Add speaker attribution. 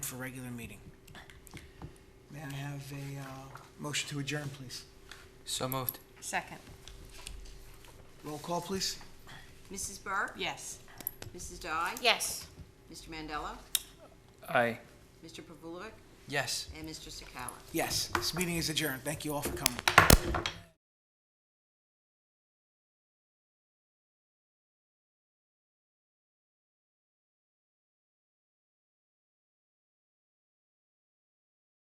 Speaker 1: for regular meeting.
Speaker 2: May I have a uh, motion to adjourn, please?
Speaker 3: So moved.
Speaker 4: Second.
Speaker 2: Roll call, please.
Speaker 5: Mrs. Burke?
Speaker 4: Yes.
Speaker 5: Mrs. Dye?
Speaker 4: Yes.
Speaker 5: Mr. Mandela?
Speaker 3: Aye.
Speaker 5: Mr. Pavulovic?
Speaker 3: Yes.
Speaker 5: And Mr. Sakala?
Speaker 2: Yes, this meeting is adjourned. Thank you all for coming.